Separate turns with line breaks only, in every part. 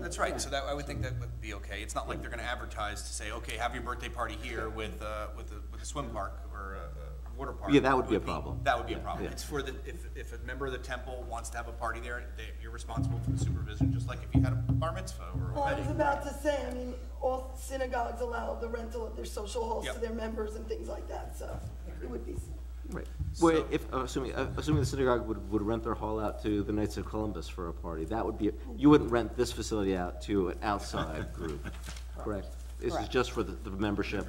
That's right, so that, I would think that would be okay. It's not like they're gonna advertise to say, okay, have your birthday party here with, uh, with a, with a swim park or a, a water park.
Yeah, that would be a
It
problem.
That would be a
Yeah,
problem.
yeah.
It's for the, if, if a member of the temple wants to have a party there, they, you're responsible for the supervision, just like if you had a bar mitzvah or a
Well, I
wedding.
was about to say, I mean, all synagogues allow the rental of their social halls to
Yep.
their members and things like that, so it would be,
Right. Well,
So-
if, uh, assuming, uh, assuming the synagogue would, would rent their hall out to the Knights of Columbus for a party, that would be, you wouldn't rent this facility out to an outside group, correct? This is
Correct.
just for the, the membership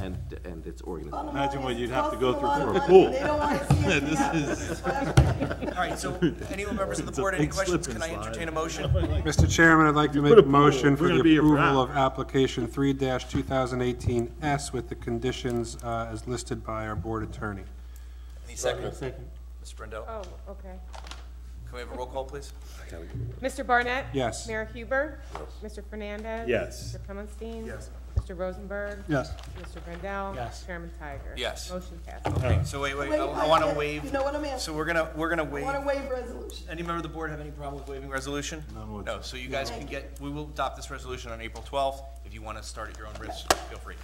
and, and its organization.
Imagine what you'd have to go through
for a pool.
They don't wanna see it happen. That's what I'm saying.
All right, so any members of the board, any
big slip
questions?
and
Can I
slide.
entertain a motion?
Mr. Chairman, I'd like to make
put
a
a pool.
motion for
We're
the
gonna be here for
approval of
hours.
application three two thousand eighteen S with the conditions uh, as listed by our board attorney.
Any second? Second. Mr. Brendel,
Oh, okay.
can we have a roll call, please?
Mr. Barnett?
Yes.
Mayor Huber? Mr. Fernandez?
Yes.
Mr. Kaminsky?
Yes.
Mr. Rosenberg?
Yes.
Mr. Brendel?
Yes.
Chairman Tiger?
Yes.
Motion passes.
Okay, so wait, wait, I- I wanna waive.
You know what I'm asking?
So we're gonna, we're gonna
I
waive.
wanna waive resolution.
Any member of the board have any problem with waiving resolution? No, so you guys can get, we will adopt this resolution on April twelfth. If you want to start at your own risk, feel free,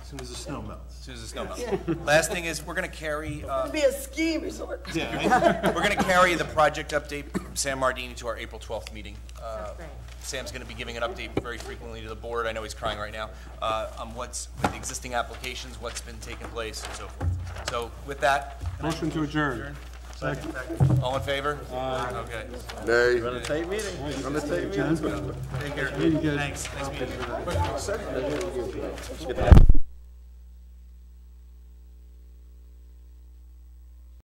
As soon as the snow melts.
as soon as the snow melts. Last thing is, we're gonna carry, uh,
It'd be a ski resort.
we're gonna carry the project update from Sam Mardini to our April twelfth meeting. Uh,
That's great.
Sam's gonna be giving an update very frequently to the board, I know he's crying right now, uh, on what's, with the existing applications, what's been taking place and so forth. So with that,
Motion to adjourn.
all in favor? Okay,
Nay.
take care, thanks, nice meeting you.